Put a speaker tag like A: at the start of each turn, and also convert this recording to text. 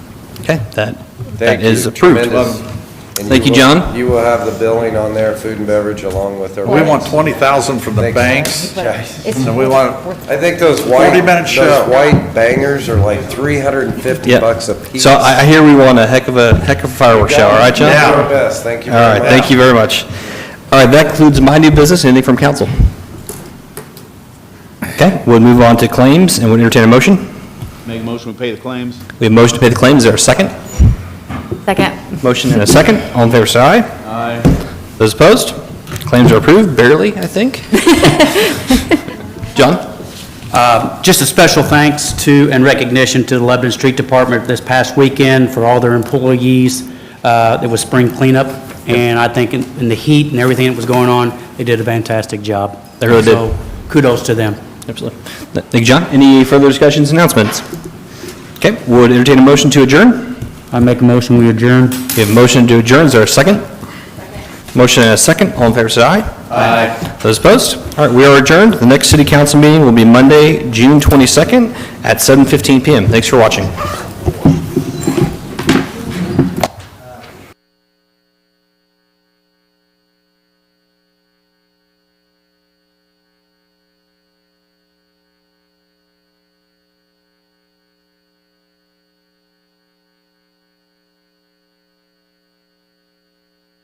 A: Okay, that, that
B: Thank you.
A: is approved.
B: Tremendous. And
A: Thank you,
B: will-
A: John.
B: You will have the billing on there, food and beverage, along with their.
C: We want 20,000 from the
B: Thanks.
C: banks.
B: Jeez.
C: So we want,
B: I think those white,
C: 40-minute show.
B: those white bangers are like 350
A: Yep.
B: bucks a piece.
A: So I I hear we want a heck of a, heck of a fireworks show, all right, John?
B: Do your best, thank you
A: All
B: very
A: right,
B: much.
A: thank you very much. All right, that concludes my new business, anything from council? Okay, we'll move on to claims, and we'll entertain a motion.
D: Make a motion, we pay the claims.
A: We have a motion to pay the claims, is there a second?
E: Second.
A: Motion and a second, all in favor, say aye.
D: Aye.
A: Those opposed? Claims are approved, barely, I think. John?
F: Just a special thanks to and recognition to the Lebanon Street Department this past weekend for all their employees. Uh, It was spring cleanup, and I think in in the heat and everything that was going on, they did a fantastic job.
A: They really did.
F: So Kudos to them.
A: Absolutely. Thank you, John. Any further discussions, announcements? Okay, would entertain a motion to adjourn?
F: I make a motion, we adjourn.
A: We have a motion to adjourn, is there a second? Motion and a second, all in favor, say aye.
D: Aye.
A: Those opposed? All right, we are adjourned. The next city council meeting will be Monday, June 22nd at 7:15 PM. Thanks for watching.